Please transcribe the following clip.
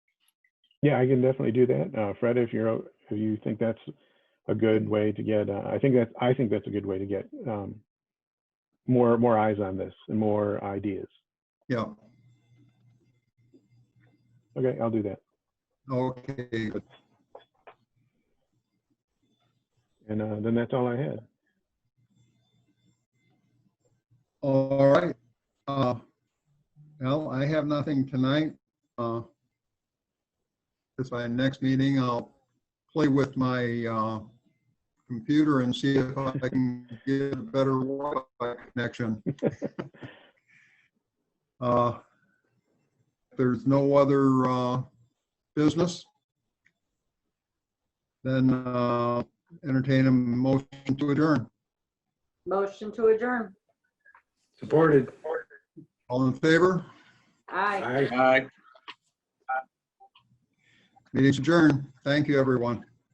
Yeah, I can definitely do that. Uh, Fred, if you're, o- if you think that's a good way to get, uh, I think that's, I think that's a good way to get um, more, more eyes on this and more ideas. Yeah, Okay, I'll do that. okay, good. And uh, then that's all I had. all right. Uh, Well, I have nothing tonight. Uh, This, my next meeting, I'll play with my uh, computer and see if I can get a better Wi-Fi connection. Uh, if There's no other uh, business? Then uh, entertain a motion to adjourn. Motion to adjourn. Supported. All in favor? Aye. Aye. Meeting's adjourned. Thank you, everyone.